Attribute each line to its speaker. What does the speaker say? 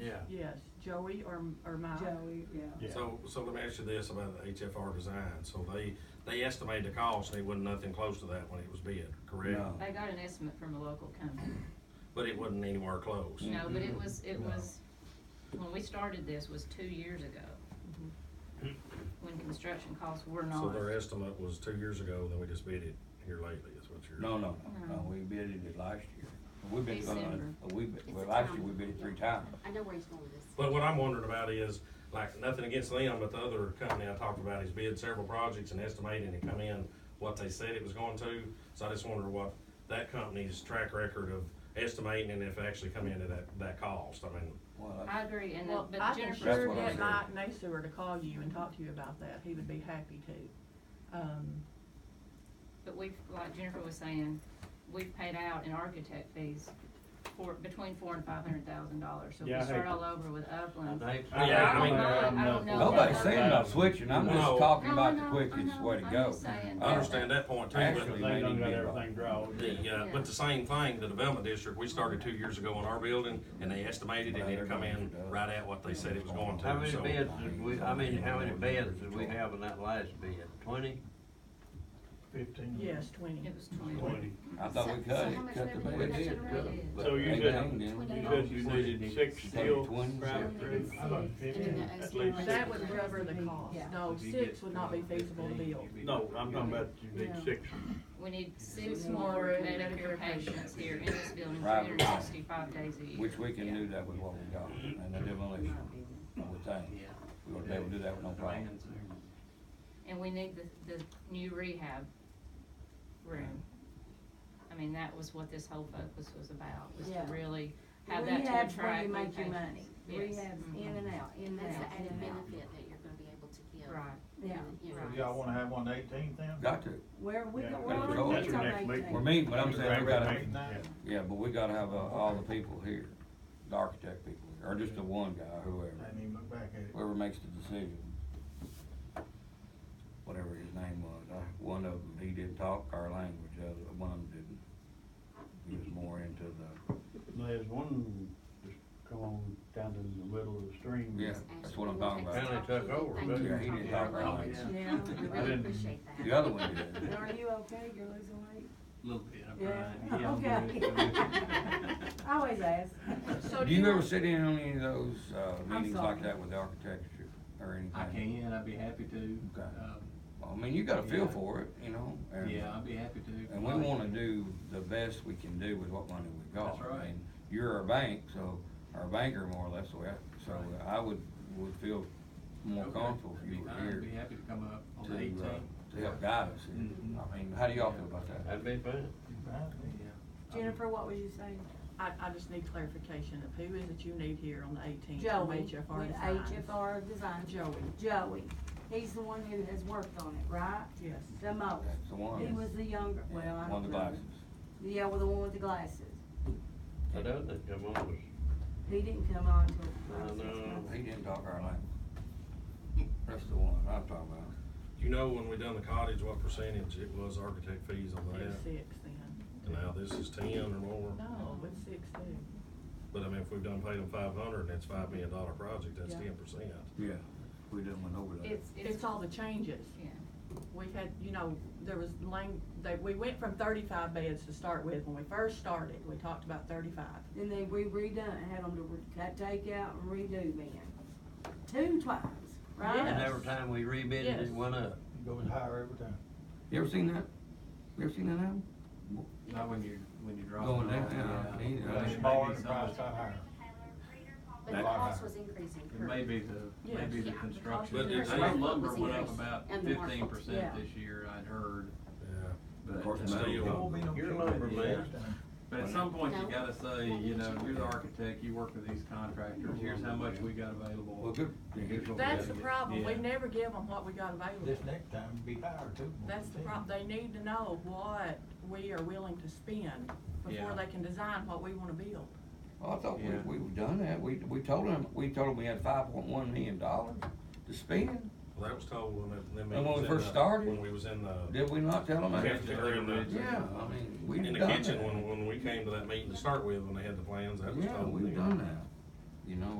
Speaker 1: Yeah.
Speaker 2: Yes, Joey or, or Mike?
Speaker 3: Joey, yeah.
Speaker 1: Yeah.
Speaker 4: So, so let me ask you this about the HFR design. So they, they estimated the cost and it wasn't nothing close to that when it was bid, correct?
Speaker 1: No.
Speaker 5: I got an estimate from a local company.
Speaker 4: But it wasn't anywhere close.
Speaker 5: No, but
Speaker 6: Mm-hmm.
Speaker 5: it was, it
Speaker 1: No.
Speaker 5: was, when we started this was two years ago.
Speaker 6: Mm-hmm.
Speaker 5: When construction costs were not.
Speaker 4: So their estimate was two years ago, then we just bid it here lately is what you're.
Speaker 6: No, no, no,
Speaker 5: No.
Speaker 6: no, Uh, we bid it last year. We bid it, on-
Speaker 5: December.
Speaker 6: we, bid- well, last year we bid it three times.
Speaker 7: I know where he's going with this.
Speaker 4: But what I'm wondering about is, like, nothing against them, but the other company I talked about has bid several projects and estimated and come in what they said it was going to. So I just wonder what that company's track record of estimating and if it actually come into that, that cost. I mean,
Speaker 6: Well,
Speaker 5: I agree, and, the-
Speaker 2: Well, I
Speaker 5: but
Speaker 2: can
Speaker 5: Jennifer's.
Speaker 2: sure
Speaker 6: That's what I
Speaker 2: get
Speaker 6: said.
Speaker 2: Mike Nasewer to call you and talk to you about that, he would be happy to. Um,
Speaker 5: But we've, like Jennifer was saying, we've paid out in architect fees for, between four and five hundred thousand dollars. So if
Speaker 1: Yeah, I
Speaker 5: we start
Speaker 1: hate-
Speaker 5: all over with
Speaker 2: Um,
Speaker 5: Upland.
Speaker 4: Yeah, I mean,
Speaker 5: I don't know.
Speaker 6: nobody's saying about switching, I'm
Speaker 4: No.
Speaker 6: just talking
Speaker 5: No,
Speaker 6: about
Speaker 5: I
Speaker 6: the
Speaker 5: know, I
Speaker 6: quickest
Speaker 5: know.
Speaker 6: way to
Speaker 5: I'm
Speaker 6: go.
Speaker 5: just saying.
Speaker 6: Uh,
Speaker 4: I understand that point too, but
Speaker 6: Actually,
Speaker 1: They
Speaker 6: they
Speaker 1: done
Speaker 6: need to
Speaker 1: got
Speaker 6: be wrong.
Speaker 1: everything drawn.
Speaker 4: the, uh, but the same thing, the development district, we started two years ago in our building and they estimated and it come in right at what they said it was going to.
Speaker 8: How many
Speaker 4: So-
Speaker 8: beds did we, I mean, how many beds did we have in that last bid? Twenty?
Speaker 1: Fifteen.
Speaker 9: Mm-hmm.
Speaker 2: yes, twenty.
Speaker 5: It was twenty.
Speaker 1: Twenty.
Speaker 6: I thought we
Speaker 7: So-
Speaker 6: cut
Speaker 7: so
Speaker 6: it,
Speaker 7: how much
Speaker 6: cut the
Speaker 7: revenue
Speaker 6: bid.
Speaker 7: did that generate?
Speaker 6: But
Speaker 1: So you
Speaker 6: they
Speaker 1: said-
Speaker 6: done did.
Speaker 7: Twenty
Speaker 1: You said you needed six steel
Speaker 6: Twenty.
Speaker 1: private trees. I thought fifteen, at least.
Speaker 2: That would cover the cost, no, Oh, six would not be feasible to build.
Speaker 1: No, I'm talking about you need
Speaker 2: Yeah.
Speaker 1: six.
Speaker 5: We need six
Speaker 2: Six more
Speaker 5: more
Speaker 2: Medicare
Speaker 5: Medicare patients here in this building, three
Speaker 6: Right.
Speaker 5: hundred and sixty-five days a year.
Speaker 6: Which we
Speaker 5: Yeah.
Speaker 6: can do that with what we got,
Speaker 1: Mm-hmm.
Speaker 6: and the demolition, I would think. We would be able to do that with no problem.
Speaker 5: And we need the, the new rehab room. I mean, that was what this whole focus was about, was to
Speaker 3: Yeah.
Speaker 5: really have that to
Speaker 3: Rehab's where
Speaker 5: attract
Speaker 3: you
Speaker 5: new
Speaker 3: make your
Speaker 5: patients.
Speaker 3: money.
Speaker 5: Yes.
Speaker 3: Rehab's
Speaker 5: Mhm.
Speaker 3: in and out, in and
Speaker 7: That's the
Speaker 3: out, in and
Speaker 7: added
Speaker 3: out.
Speaker 7: benefit that you're gonna be able to give.
Speaker 5: Right.
Speaker 3: Yeah.
Speaker 7: You know.
Speaker 5: Right.
Speaker 9: Y'all wanna have one eighteen then?
Speaker 6: Got to,
Speaker 3: Where we,
Speaker 1: Yeah.
Speaker 3: go-
Speaker 6: That's
Speaker 3: we're
Speaker 6: your
Speaker 3: already on
Speaker 1: next meeting.
Speaker 3: eighteen.
Speaker 6: we're meeting, but I'm saying we gotta,
Speaker 9: Eight, nine?
Speaker 6: yeah, but we gotta have, uh, all the people here, the architect people, here, or just the one guy, whoever.
Speaker 9: I didn't even look back at it.
Speaker 6: whoever makes the decision, whatever his name was, I, one of them, he didn't talk our language, the other, one of them didn't. He was more into the,
Speaker 1: There's one just come on down to the middle of the stream.
Speaker 6: yeah, that's what I'm talking about.
Speaker 8: Kinda took over,
Speaker 7: Thank
Speaker 8: doesn't
Speaker 7: you
Speaker 6: Yeah,
Speaker 7: for
Speaker 6: he didn't
Speaker 7: talking
Speaker 6: talk
Speaker 7: about
Speaker 6: our
Speaker 7: it.
Speaker 6: language.
Speaker 3: Yeah.
Speaker 7: I
Speaker 1: I
Speaker 7: really
Speaker 1: didn't-
Speaker 7: appreciate that.
Speaker 6: The other one did.
Speaker 3: And Are you okay? You're losing weight?
Speaker 8: Little bit,
Speaker 6: Uh,
Speaker 8: I'm
Speaker 3: Yeah,
Speaker 8: trying.
Speaker 2: Oh,
Speaker 8: Yeah, I'm
Speaker 3: okay. I always ask.
Speaker 2: So
Speaker 6: Do you ever sit in on any of those, uh,
Speaker 3: I'm
Speaker 6: meetings like
Speaker 3: sorry.
Speaker 6: that with the architecture or anything?
Speaker 8: I can, I'd be happy to.
Speaker 6: Okay.
Speaker 8: Um,
Speaker 6: Well, I mean, you gotta feel
Speaker 8: Yeah.
Speaker 6: for it, you know, and.
Speaker 8: Yeah, I'd be happy to.
Speaker 6: And we wanna do the best we can do with what money we got.
Speaker 8: That's right.
Speaker 6: I mean, You're our bank, so, our banker more or less, so I, so
Speaker 8: Right.
Speaker 6: I would, would feel more
Speaker 8: Okay,
Speaker 6: comfortable if
Speaker 8: that'd
Speaker 6: you
Speaker 8: be
Speaker 6: were
Speaker 8: fine.
Speaker 6: here
Speaker 8: Be happy to come up on
Speaker 6: to,
Speaker 8: the
Speaker 6: uh,
Speaker 8: eighteenth.
Speaker 6: to help guide us here.
Speaker 8: Mhm.
Speaker 6: I mean, how do y'all feel about that?
Speaker 8: That'd be fun.
Speaker 9: Right.
Speaker 3: Jennifer, what was you saying?
Speaker 2: I, I just need clarification of who is it you need here on the eighteenth
Speaker 3: Joey.
Speaker 2: from HFR
Speaker 3: With
Speaker 2: Designs?
Speaker 3: HFR Design.
Speaker 2: Joey.
Speaker 3: Joey. He's the one who has worked on it, right?
Speaker 2: Yes.
Speaker 3: The most.
Speaker 6: That's the one.
Speaker 3: He was the younger, well, I
Speaker 6: Yeah,
Speaker 3: don't know.
Speaker 6: One of the glasses.
Speaker 3: Yeah, well, the one with the glasses.
Speaker 8: I don't think I'm on.
Speaker 3: He didn't come on till.
Speaker 8: I know.
Speaker 6: He didn't talk our language. That's the one I'm talking about.
Speaker 4: You know, when we done the cottage, what percentage it was architect fees on
Speaker 2: It was
Speaker 4: that?
Speaker 2: six then,
Speaker 4: And now this is ten or more.
Speaker 2: no, it was six then.
Speaker 4: But I mean, if we've done paid them five hundred and it's five million dollar project, that's
Speaker 2: Yeah.
Speaker 4: ten percent.
Speaker 6: Yeah, we didn't went over that.
Speaker 5: It's,
Speaker 2: It's
Speaker 5: it's,
Speaker 2: all the changes.
Speaker 5: yeah.
Speaker 2: We had, you know, there was lang, that, we went from thirty-five beds to start with, when we first started, we talked about thirty-five.
Speaker 3: Then they we redone, had them to re- cut- take out and redo then. Two times, right?
Speaker 8: And every time we rebid it,
Speaker 2: Yes.
Speaker 8: it went up.
Speaker 9: It Goes higher every time.
Speaker 6: You ever seen that? You ever seen that album?
Speaker 8: Not when you, when you drop.
Speaker 6: Going
Speaker 8: it off,
Speaker 6: down, yeah, I need it.
Speaker 8: But it may be
Speaker 9: Smaller the price
Speaker 8: something-
Speaker 9: got higher.
Speaker 7: But the
Speaker 6: That-
Speaker 7: cost was increasing.
Speaker 8: It
Speaker 7: per-
Speaker 8: may be the,
Speaker 2: Yes.
Speaker 8: maybe the
Speaker 7: Yeah, the
Speaker 8: construction.
Speaker 4: cost of the
Speaker 8: Our
Speaker 4: construction
Speaker 8: lumber
Speaker 7: was
Speaker 8: went up
Speaker 7: increased,
Speaker 8: about
Speaker 7: and the market,
Speaker 8: fifteen percent
Speaker 3: yeah.
Speaker 8: this year, I'd heard,
Speaker 4: Yeah.
Speaker 8: but.
Speaker 6: course,
Speaker 8: uh,
Speaker 6: metal
Speaker 8: still-
Speaker 6: It
Speaker 9: It won't be no
Speaker 8: You're a
Speaker 9: cheap
Speaker 8: lumberman.
Speaker 9: bid this time.
Speaker 8: But at some point, you
Speaker 7: No.
Speaker 8: gotta say, you know, you're the architect, you work with these contractors, here's how much we got available.
Speaker 6: Well, good.
Speaker 8: and here's what we
Speaker 2: That's the
Speaker 8: gotta get.
Speaker 2: problem, we
Speaker 8: Yeah.
Speaker 2: never give them what we got
Speaker 9: This
Speaker 2: available.
Speaker 9: next time it'll be higher too. more
Speaker 2: That's the
Speaker 9: than
Speaker 2: problem, they need to know what we are willing to spend before
Speaker 8: Yeah.
Speaker 2: they can design what we wanna build.
Speaker 6: Well, Oh, I thought we,
Speaker 8: Yeah.
Speaker 6: we were done that, we, we told them, we told them we had five point one million dollars to spend,
Speaker 4: Well, that was told when it, them.
Speaker 6: And when we
Speaker 4: meetings in
Speaker 6: first
Speaker 4: the-
Speaker 6: started?
Speaker 4: When we was in the,
Speaker 6: did we not tell them that?
Speaker 4: Cafeteria in the-
Speaker 6: Yeah, I mean, we
Speaker 4: in
Speaker 6: done
Speaker 4: the
Speaker 6: that.
Speaker 4: kitchen, when, when we came to that meeting to start with, when they had the plans, that was
Speaker 6: Yeah,
Speaker 4: told. then.
Speaker 6: we've done that, you know,